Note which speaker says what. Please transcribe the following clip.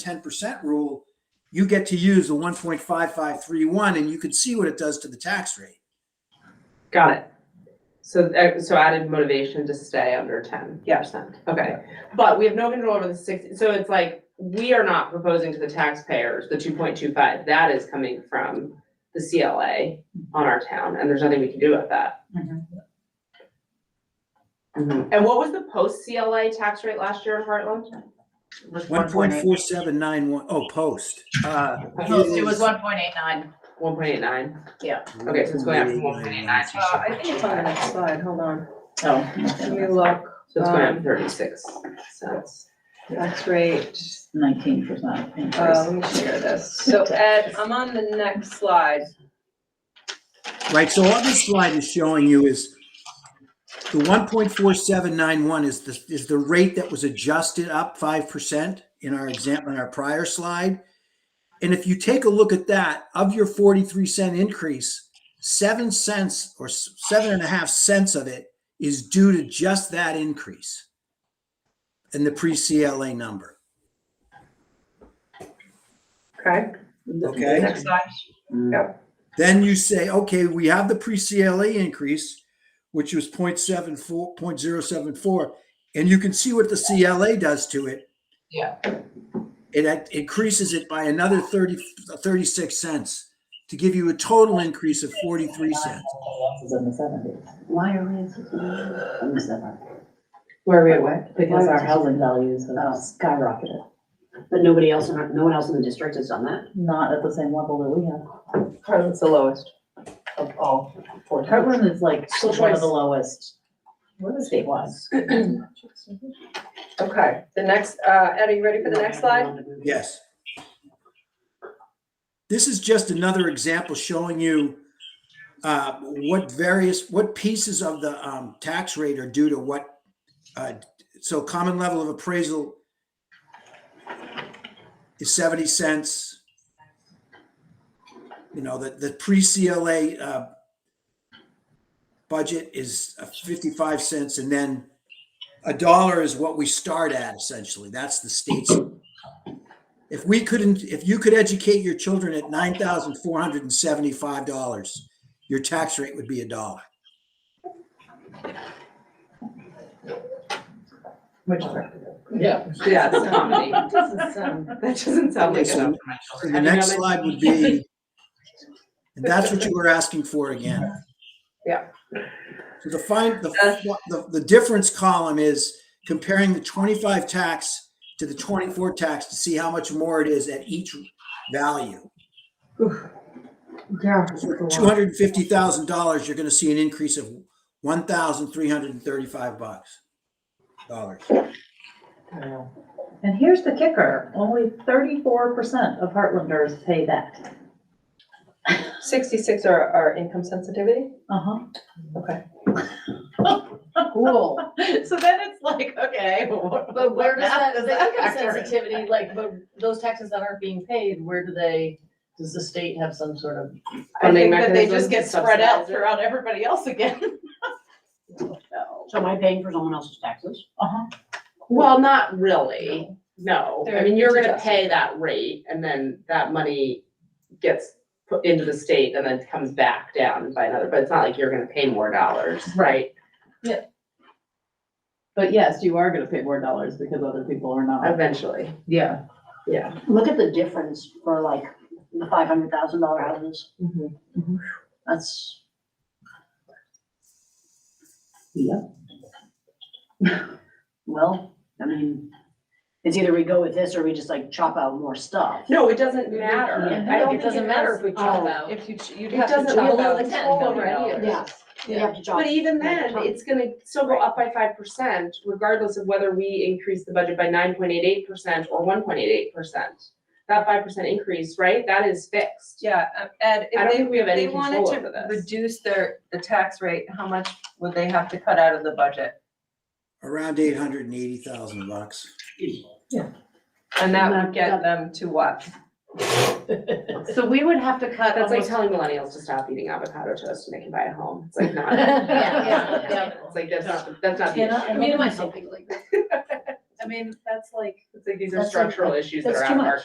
Speaker 1: 10% rule, you get to use the 1.5531 and you can see what it does to the tax rate.
Speaker 2: Got it. So, uh, so added motivation to stay under ten percent. Okay, but we have no control over the six, so it's like, we are not proposing to the taxpayers the two point two five. That is coming from the CLA on our town, and there's nothing we can do about that.
Speaker 3: Mhm.
Speaker 2: Mhm. Mm-hmm. And what was the post-CLA tax rate last year in Heartland?
Speaker 3: was one point eight.
Speaker 1: 1.4791, oh, post. Uh,
Speaker 3: It was one point eight nine.
Speaker 2: One point eight nine?
Speaker 3: Yeah.
Speaker 2: Okay, so it's going up from one point eight nine,
Speaker 4: Uh, I think it's on the next slide, hold on,
Speaker 3: Oh,
Speaker 4: let me look,
Speaker 2: so it's going up thirty-six cents.
Speaker 4: tax rate,
Speaker 3: nineteen percent
Speaker 4: uh,
Speaker 3: increase.
Speaker 4: let me share this, so Ed, I'm on the next slide.
Speaker 1: Right, so all this slide is showing you is the 1.4791 is the, is the rate that was adjusted up 5% in our example, in our prior slide. And if you take a look at that, of your 43 cent increase, seven cents or s- seven and a half cents of it is due to just that increase and the pre-CLA number.
Speaker 4: Okay.
Speaker 1: Okay.
Speaker 4: Next slide.
Speaker 1: Then you say, okay, we have the pre-CLA increase, which was 0.74, 0.074, and you can see what the CLA does to it.
Speaker 2: Yeah.
Speaker 1: It act- increases it by another 30, 36 cents to give you a total increase of 43 cents.
Speaker 3: Is in the seventies. Why are we in the
Speaker 2: Where are we at, what?
Speaker 3: Because our housing values have skyrocketed,
Speaker 5: But nobody else, in our- no one else in the district has done that?
Speaker 3: not at the same level that we have
Speaker 4: Heartland's the lowest.
Speaker 3: of all four.
Speaker 4: That
Speaker 3: Heartland is like
Speaker 2: School
Speaker 3: one
Speaker 2: choice.
Speaker 3: of the lowest statewide.
Speaker 4: Okay, the next, uh, Ed, are you ready for the next slide?
Speaker 1: Yes. This is just another example showing you uh, what various, what pieces of the um, tax rate are due to what. uh, So common level of appraisal is 70 cents. You know, the, the pre-CLA uh, budget is uh, 55 cents and then a dollar is what we start at essentially. That's the state's if we couldn't, if you could educate your children at nine thousand four hundred and seventy-five dollars, your tax rate would be a dollar.
Speaker 3: Which,
Speaker 2: Yeah, it's comedy.
Speaker 3: doesn't sound.
Speaker 2: That doesn't sound like
Speaker 1: Okay, so-
Speaker 2: enough for my children.
Speaker 1: The
Speaker 2: I mean,
Speaker 1: next
Speaker 2: I'm-
Speaker 1: slide would be, and that's what you were asking for again.
Speaker 4: Yeah.
Speaker 1: So the find, the,
Speaker 2: Uh,
Speaker 1: the, the difference column is comparing the twenty-five tax to the twenty-four tax to see how much more it is at each value.
Speaker 4: Yeah.
Speaker 1: Two hundred and fifty thousand dollars, you're gonna see an increase of one thousand three hundred and thirty-five bucks. Dollars.
Speaker 3: And here's the kicker, only thirty-four percent of Heartlanders pay that.
Speaker 4: Sixty-six are, are income sensitivity?
Speaker 3: Uh-huh.
Speaker 4: Okay.
Speaker 6: Cool.
Speaker 3: So then it's like, okay.
Speaker 6: But where does that, the income sensitivity, like, but those taxes that aren't being paid, where do they, does the state have some sort of?
Speaker 4: I
Speaker 2: Funding
Speaker 4: think that they
Speaker 2: mechanism
Speaker 4: just get
Speaker 2: to
Speaker 4: spread out
Speaker 2: subsidize it.
Speaker 4: throughout everybody else again.
Speaker 5: So am I paying for someone else's taxes?
Speaker 3: Uh-huh.
Speaker 2: Well, not really, no. I
Speaker 4: They're
Speaker 2: mean, you're gonna
Speaker 4: adjusted.
Speaker 2: pay that rate and then that money gets put into the state and then comes back down by another, but it's not like you're gonna pay more dollars, right?
Speaker 6: But yes, you are gonna pay more dollars because other people are not.
Speaker 2: Eventually,
Speaker 6: Yeah.
Speaker 2: yeah.
Speaker 5: Look at the difference for like the five hundred thousand dollar houses.
Speaker 6: Mm-hmm.
Speaker 5: That's.
Speaker 6: Yeah.
Speaker 5: Well, I mean, it's either we go with this or we just like chop out more stuff.
Speaker 2: No, it doesn't matter.
Speaker 6: Yeah.
Speaker 2: I
Speaker 6: don't
Speaker 2: think
Speaker 6: think it matters if we chop out.
Speaker 4: If you, ch- you'd
Speaker 2: It
Speaker 4: have to
Speaker 2: doesn't, we have
Speaker 4: chop
Speaker 2: no
Speaker 4: out ten
Speaker 2: control over
Speaker 4: million
Speaker 2: any
Speaker 4: dollars.
Speaker 2: of
Speaker 5: Yeah.
Speaker 2: this.
Speaker 5: You have to chop.
Speaker 2: But even
Speaker 5: Yeah,
Speaker 2: then,
Speaker 5: chop.
Speaker 2: it's gonna still go up by five percent, regardless of whether we increase the budget by nine point eight eight percent or one point eight eight percent. That five percent increase, right, that is fixed.
Speaker 4: Yeah, um, Ed,
Speaker 2: I
Speaker 4: if
Speaker 2: don't
Speaker 4: they,
Speaker 2: think we have
Speaker 4: if they
Speaker 2: any
Speaker 4: wanted
Speaker 2: control
Speaker 4: to
Speaker 2: over this.
Speaker 4: reduce their, the tax rate, how much would they have to cut out of the budget?
Speaker 1: Around eight hundred and eighty thousand bucks.
Speaker 4: And that would
Speaker 5: Not-
Speaker 4: get
Speaker 5: not-
Speaker 4: them to what?
Speaker 6: So we would have to cut
Speaker 2: That's like
Speaker 6: almost.
Speaker 2: telling millennials to stop eating avocado toast and they can buy a home, it's like not.
Speaker 6: Yeah, yeah, yeah.
Speaker 2: It's like, that's not, that's not the
Speaker 6: Can I-
Speaker 2: issue.
Speaker 6: I mean,
Speaker 5: myself. Something like that.
Speaker 3: I mean, that's like.
Speaker 2: It's like these are
Speaker 5: That's a-
Speaker 2: structural issues that
Speaker 5: that's
Speaker 2: are
Speaker 5: too
Speaker 2: out of our
Speaker 5: much.